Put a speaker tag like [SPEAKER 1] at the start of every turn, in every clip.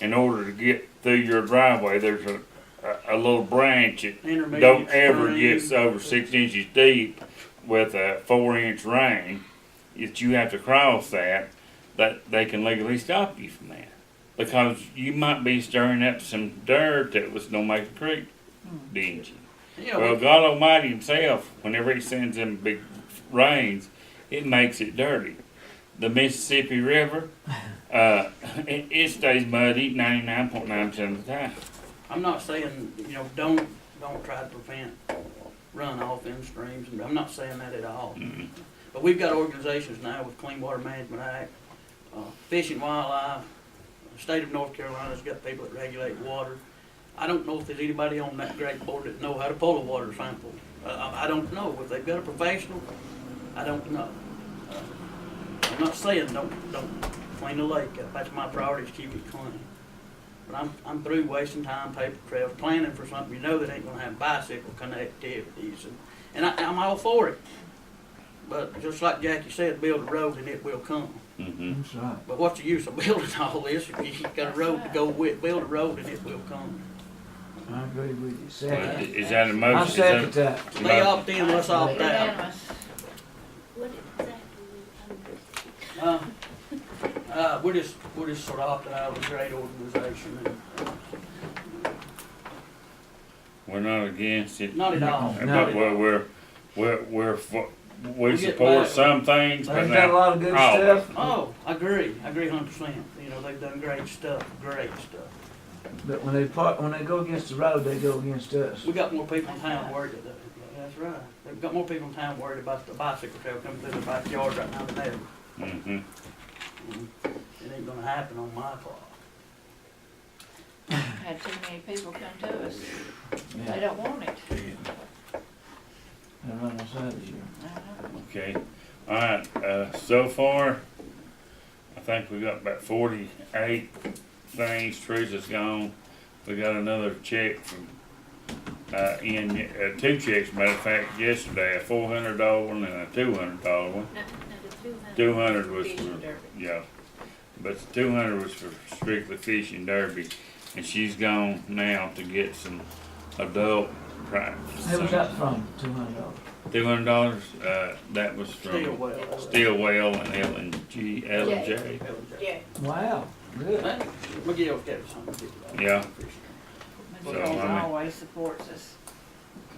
[SPEAKER 1] in order to get through your driveway, there's a, a, a little branch that
[SPEAKER 2] Intermediate
[SPEAKER 1] don't ever get
[SPEAKER 2] spring.
[SPEAKER 1] over six inches deep with a four inch rain. If you have to cross that, that they can legally stop you from that. Because you might be stirring up some dirt that was gonna make the creek
[SPEAKER 2] Hmm.
[SPEAKER 1] dingy.
[SPEAKER 2] You know,
[SPEAKER 1] Well, God Almighty Himself, whenever He sends them big rains, it makes it dirty. The Mississippi River, uh, it, it stays muddy 99.9% of the time.
[SPEAKER 2] I'm not saying, you know, don't, don't try to prevent runoff in streams, and I'm not saying that at all. But we've got organizations now with Clean Water Management Act, uh, Fish and Wildlife, the state of North Carolina's got people that regulate water. I don't know if there's anybody on that great board that know how to pull a water sample. Uh, I, I don't know, if they've got a professional, I don't know. Uh, I'm not saying don't, don't clean the lake up, that's my priority, is keep it clean. But I'm, I'm through wasting time, paper trails, planning for something you know that ain't gonna have bicycle connectivities, and, and I, I'm all for it. But just like Jackie said, build a road and it will come.
[SPEAKER 1] Mm-hmm.
[SPEAKER 3] That's right.
[SPEAKER 2] But what's the use of building all this if you ain't got a road to go with? Build a road and it will come.
[SPEAKER 3] I agree with you. Second.
[SPEAKER 1] Is that a motion?
[SPEAKER 3] I
[SPEAKER 1] Is that-
[SPEAKER 3] second that.
[SPEAKER 2] They opt in, let's opt out.
[SPEAKER 4] Unanimous.
[SPEAKER 5] What exactly?
[SPEAKER 2] Uh, uh, we're just, we're just sort of opting out of a great organization and uh,
[SPEAKER 1] We're not against it. Uh,
[SPEAKER 2] not at all.
[SPEAKER 3] No.
[SPEAKER 2] Not
[SPEAKER 1] But
[SPEAKER 2] at-
[SPEAKER 1] we're, we're, we're, we're, fo- we
[SPEAKER 2] We get
[SPEAKER 1] support
[SPEAKER 2] back.
[SPEAKER 1] some things, but
[SPEAKER 3] They've got a
[SPEAKER 1] not.
[SPEAKER 3] lot of good
[SPEAKER 1] Oh.
[SPEAKER 3] stuff,
[SPEAKER 2] Oh, I agree, I agree a hundred percent. You know, they've done great stuff, great stuff.
[SPEAKER 3] but when they park, when they go against the road, they go against us.
[SPEAKER 2] We got more people in town worried about That's right. We've got more people in town worried about the bicycle trail coming through their backyard right now than ever.
[SPEAKER 1] hmm
[SPEAKER 2] Mhm. It ain't gonna happen on my part.
[SPEAKER 4] Had too many people come to us. They
[SPEAKER 3] Yeah,
[SPEAKER 4] don't want it.
[SPEAKER 3] they run us out of here.
[SPEAKER 1] Okay, all right, uh, so far, I think we got about forty-eight things, Teresa's gone. We got another check from, uh, in, uh, two checks, matter of fact, yesterday, a four hundred dollar one and a two hundred dollar one.
[SPEAKER 5] No, no, the two hundred.
[SPEAKER 1] Two hundred was
[SPEAKER 5] Fish and
[SPEAKER 1] for,
[SPEAKER 5] derby.
[SPEAKER 1] yeah, but the two hundred was for strictly fishing derby, and she's gone now to get some adult prize.
[SPEAKER 3] Who was that from, two hundred dollars?
[SPEAKER 1] Two hundred dollars, uh, that was from.
[SPEAKER 2] Still well.
[SPEAKER 1] Stillwell and L and G, L and J.
[SPEAKER 5] Yeah.
[SPEAKER 3] Wow, good.
[SPEAKER 2] Hey, McGill gave us something to do.
[SPEAKER 1] Yeah. So,
[SPEAKER 4] McDonald's
[SPEAKER 1] I mean-
[SPEAKER 4] always supports us.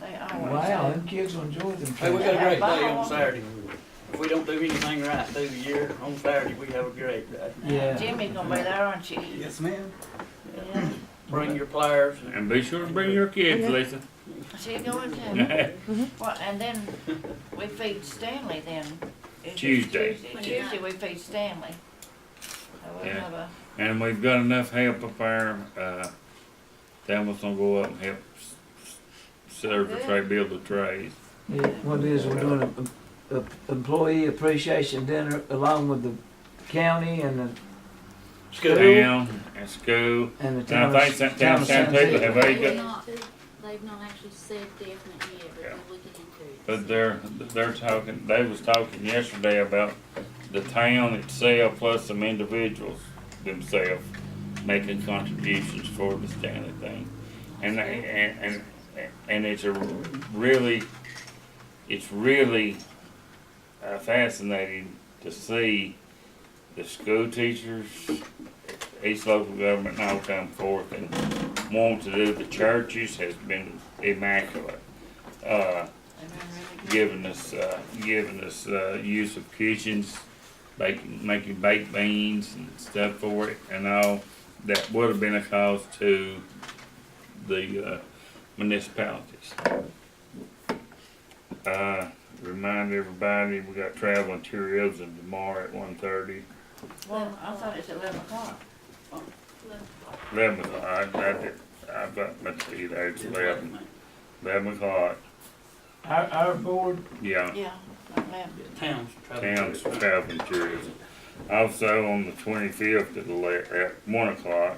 [SPEAKER 4] They always
[SPEAKER 3] Wow,
[SPEAKER 4] have.
[SPEAKER 3] them kids will enjoy them.
[SPEAKER 2] Hey, we got
[SPEAKER 3] trips.
[SPEAKER 2] a great day on Saturday. If we don't do anything right through the year, on Saturday, we have a great day.
[SPEAKER 3] Yeah.
[SPEAKER 4] Jimmy's gonna be there, aren't you?
[SPEAKER 6] Yes, ma'am.
[SPEAKER 4] Yeah.
[SPEAKER 2] Bring your pliers and
[SPEAKER 1] And be sure to bring your kids, Lisa.
[SPEAKER 4] She going to, well, and then we feed Stanley then. Is it
[SPEAKER 1] Tuesday.
[SPEAKER 4] Tuesday, we feed Stanley. So we'll
[SPEAKER 1] Yeah.
[SPEAKER 4] have a,
[SPEAKER 1] And we've got enough help up there, uh, Tamara's gonna go up and help s- s- serve the tray, build the trays.
[SPEAKER 3] Yeah, what it is, we're doing a, a employee appreciation dinner along with the county and the, School.
[SPEAKER 1] Town and school,
[SPEAKER 3] and the town.
[SPEAKER 1] and
[SPEAKER 3] of-
[SPEAKER 1] I think San-
[SPEAKER 3] town
[SPEAKER 1] town,
[SPEAKER 3] of
[SPEAKER 1] San
[SPEAKER 3] Santee.
[SPEAKER 1] Pedro, have
[SPEAKER 5] They've
[SPEAKER 1] they got,
[SPEAKER 5] not, they've not actually said definite yet,
[SPEAKER 1] Yeah.
[SPEAKER 5] but we can encourage.
[SPEAKER 1] but they're, they're talking, they was talking yesterday about the town itself plus some individuals themselves making contributions for the Stanley thing. And, and, and, and it's a really, it's really uh, fascinating to see the school teachers, each local government now come forth and want to do. The churches has been immaculate. Uh,
[SPEAKER 4] they've been really good.
[SPEAKER 1] giving us, uh, giving us, uh, use of kitchens, baking, making baked beans and stuff for it and all. That would have been a cost to the, uh, municipalities. Uh, remind everybody, we got travel and tourism tomorrow at one thirty.
[SPEAKER 4] Well, I thought it's eleven o'clock.
[SPEAKER 1] Eleven o'clock, I did, I've got my tea there, it's eleven, eleven o'clock,
[SPEAKER 3] Our, our board,
[SPEAKER 1] yeah.
[SPEAKER 4] Yeah, eleven.
[SPEAKER 2] Towns travel.
[SPEAKER 1] Towns travel and tourism. Also on the twenty-fifth at ele- at one o'clock,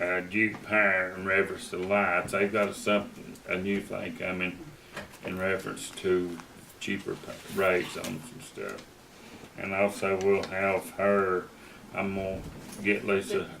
[SPEAKER 1] uh, Duke Pine in reference to lights, they've got something, a new thing coming in reference to cheaper pa- rates on some stuff. And also we'll have her, I'm gonna get Lisa